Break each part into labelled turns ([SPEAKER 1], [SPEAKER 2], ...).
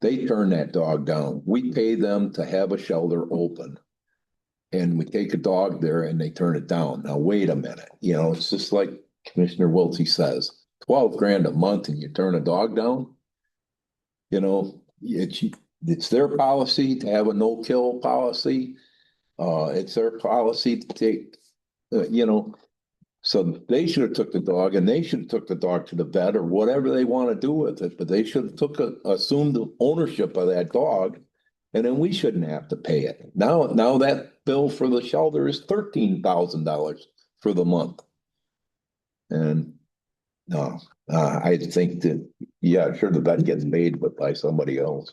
[SPEAKER 1] They turn that dog down. We pay them to have a shelter open. And we take a dog there and they turn it down. Now, wait a minute, you know, it's just like Commissioner Wiltie says, twelve grand a month and you turn a dog down? You know, it's, it's their policy to have a no-kill policy. Uh, it's their policy to take, uh, you know, so they should have took the dog and they should have took the dog to the vet or whatever they want to do with it, but they should have took a, assumed ownership of that dog. And then we shouldn't have to pay it. Now, now that bill for the shelter is thirteen thousand dollars for the month. And no, uh, I think that, yeah, sure, the vet gets paid, but by somebody else.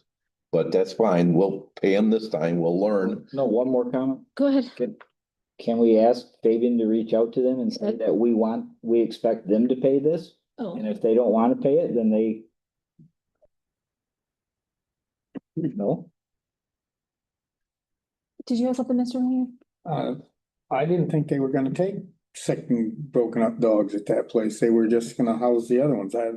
[SPEAKER 1] But that's fine. We'll pay him this time. We'll learn.
[SPEAKER 2] No, one more comment.
[SPEAKER 3] Go ahead.
[SPEAKER 2] Can, can we ask Fabian to reach out to them and say that we want, we expect them to pay this? And
[SPEAKER 3] Oh,
[SPEAKER 2] if they don't wanna pay it, then they. No,
[SPEAKER 3] did you have something, Mr. Mayor?
[SPEAKER 4] Uh, I didn't think they were gonna take sick and broken up dogs at that place. They were just gonna house the other ones. I,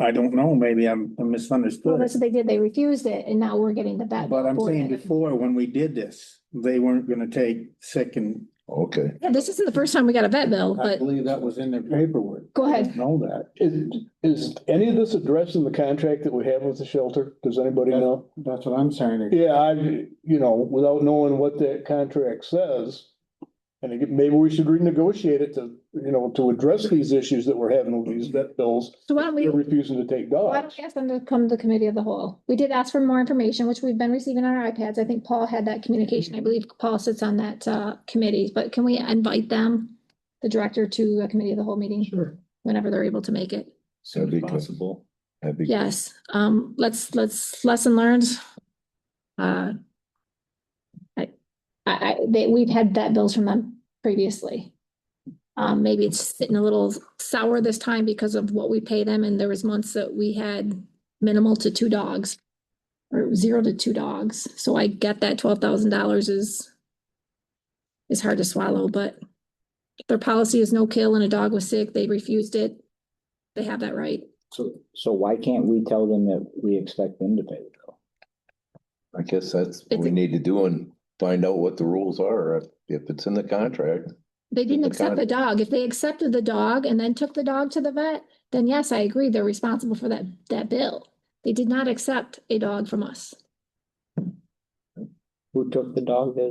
[SPEAKER 4] I don't know, maybe I'm I'm
[SPEAKER 3] Well,
[SPEAKER 4] misunderstood.
[SPEAKER 3] that's what they did. They refused it and now we're getting the vet.
[SPEAKER 4] But I'm
[SPEAKER 3] for
[SPEAKER 4] saying
[SPEAKER 3] it.
[SPEAKER 4] before, when we did this, they weren't gonna take sick and.
[SPEAKER 1] Okay.
[SPEAKER 3] Yeah, this isn't the first time we got a vet bill,
[SPEAKER 4] I
[SPEAKER 3] but
[SPEAKER 4] believe that was in their paperwork.
[SPEAKER 3] Go ahead.
[SPEAKER 4] I didn't Know that.
[SPEAKER 5] Is, is any of this addressed in the contract that we have with the shelter? Does anybody know?
[SPEAKER 4] That's what I'm saying.
[SPEAKER 5] Yeah, I, you know, without knowing what that contract says. And again, maybe we should renegotiate it to, you know, to address these issues that we're having with these vet bills.
[SPEAKER 3] so why don't we,
[SPEAKER 5] They're refusing to take
[SPEAKER 3] why don't
[SPEAKER 5] dogs.
[SPEAKER 3] we ask them to come to the committee of the whole? We did ask for more information, which we've been receiving on our iPads. I think Paul had that communication. I believe Paul sits on that uh committee, but can we invite them? The director to a committee of the whole meeting? Whenever they're able to make it.
[SPEAKER 1] That'd be good. That'd be good.
[SPEAKER 3] Yes, um, let's, let's, lesson learned. Uh. I, I, I, they, we've had vet bills from them previously. Um, maybe it's sitting a little sour this time because of what we pay them and there was months that we had minimal to two dogs. Or zero to two dogs, so I get that twelve thousand dollars is. Is hard to swallow, but their policy is no kill and a dog was sick, they refused it. They have that right.
[SPEAKER 2] so, so why can't we tell them that we expect them to pay the bill?
[SPEAKER 1] I guess that's what
[SPEAKER 3] It's
[SPEAKER 1] we
[SPEAKER 3] a-
[SPEAKER 1] need to do and find out what the rules are, if, if it's in the contract.
[SPEAKER 3] They didn't
[SPEAKER 1] the
[SPEAKER 3] accept the dog. If they accepted the dog and then took the dog to the vet, then yes, I agree, they're responsible for that, that bill. They did not accept a dog from us.
[SPEAKER 2] Who took the dog there?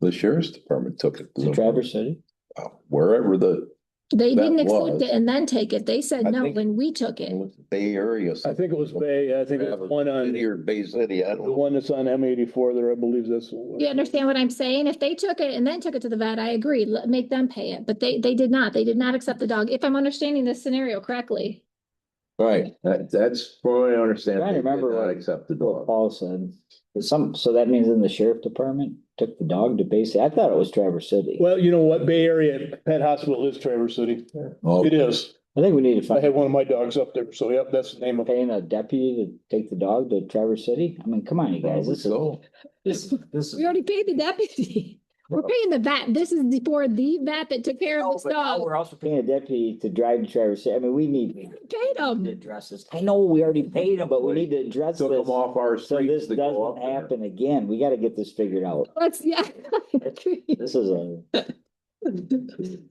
[SPEAKER 1] The sheriff's department took it.
[SPEAKER 2] To Traverse City?
[SPEAKER 1] Uh, Wherever the,
[SPEAKER 3] They
[SPEAKER 1] That
[SPEAKER 3] didn't
[SPEAKER 1] was-
[SPEAKER 3] accept it and then take it. They said
[SPEAKER 1] I
[SPEAKER 3] no
[SPEAKER 1] think-
[SPEAKER 3] when we took it.
[SPEAKER 1] Bay Area.
[SPEAKER 5] I think it was Bay, I think it was one on,
[SPEAKER 1] City
[SPEAKER 5] the
[SPEAKER 1] or Bay City, I don't.
[SPEAKER 5] one that's on M eighty-four there, I believe that's. the one.
[SPEAKER 3] You understand what I'm saying? If they took it and then took it to the vet, I agree, let, make them pay it, but they, they did not. They did not accept the dog, if I'm understanding this scenario correctly.
[SPEAKER 1] Right, that, that's from what I understand.
[SPEAKER 2] Trying to
[SPEAKER 1] they did
[SPEAKER 2] remember
[SPEAKER 1] not
[SPEAKER 2] what-
[SPEAKER 1] Accept the
[SPEAKER 2] What
[SPEAKER 1] dog.
[SPEAKER 2] Paul said, But some, so that means in the sheriff department took the dog to base, I thought it was Traverse City.
[SPEAKER 5] Well, you know what, Bay Area Pet Hospital is Traverse City.
[SPEAKER 1] Oh,
[SPEAKER 5] It is.
[SPEAKER 2] I think we need to
[SPEAKER 5] I
[SPEAKER 2] find.
[SPEAKER 5] had one of my dogs up there, so yep, that's the name of it.
[SPEAKER 2] paying a deputy to take the dog to Traverse City? I mean, come on, you guys,
[SPEAKER 1] probably
[SPEAKER 2] this is,
[SPEAKER 1] so.
[SPEAKER 2] this, this
[SPEAKER 3] We
[SPEAKER 2] is.
[SPEAKER 3] already paid the deputy. We're paying the vet. This is before the vet that took care of
[SPEAKER 2] No,
[SPEAKER 3] this
[SPEAKER 2] but now
[SPEAKER 3] dog.
[SPEAKER 2] We're also paying a deputy to drive to Traverse City, I mean, we need
[SPEAKER 3] Paid
[SPEAKER 2] to
[SPEAKER 3] him.
[SPEAKER 2] address this, I know we already paid him, but we need to address
[SPEAKER 1] Took
[SPEAKER 2] this.
[SPEAKER 1] them off our
[SPEAKER 2] So
[SPEAKER 1] streets
[SPEAKER 2] this
[SPEAKER 1] to go
[SPEAKER 2] doesn't
[SPEAKER 1] up there.
[SPEAKER 2] happen again, we gotta get this figured out,
[SPEAKER 3] Let's, yeah. I agree.
[SPEAKER 2] this is a.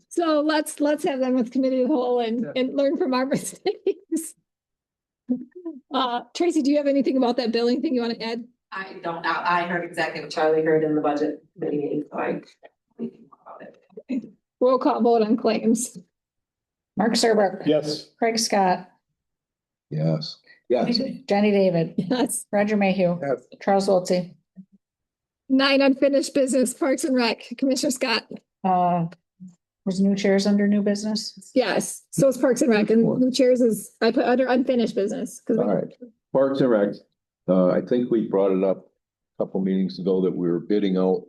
[SPEAKER 3] So let's, let's have them with committee of the whole and, and learn from our mistakes. Uh, Tracy, do you have anything about that billing thing you want to add?
[SPEAKER 6] I don't know. I heard exactly what Charlie heard in the budget meeting, so I. we can talk about it.
[SPEAKER 3] Roll call vote on claims.
[SPEAKER 7] Mark Serbrook.
[SPEAKER 5] Yes.
[SPEAKER 7] Craig Scott.
[SPEAKER 1] Yes, yes.
[SPEAKER 7] Jenny David.
[SPEAKER 3] Yes.
[SPEAKER 7] Roger Mayhew.
[SPEAKER 4] Yes.
[SPEAKER 7] Charles Wiltie.
[SPEAKER 3] Nine unfinished business, Parks and Rec, Commissioner Scott.
[SPEAKER 7] Uh, was new chairs under new business?
[SPEAKER 3] Yes, so it's Parks and Rec and new chairs is, I put under unfinished business. 'cause we-
[SPEAKER 1] All right. Parks and Rec, uh, I think we brought it up a couple meetings ago that we were bidding out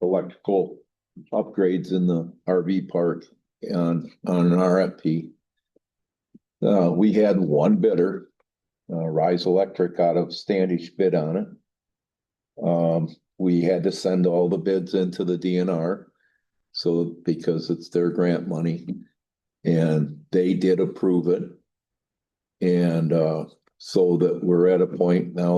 [SPEAKER 1] electrical upgrades in the RV park on, on an RFP. Uh, we had one bidder, uh, Rise Electric out of Standish bid on it. Um, we had to send all the bids into the DNR. So, because it's their grant money and they did approve it. And, uh, so that we're at a point now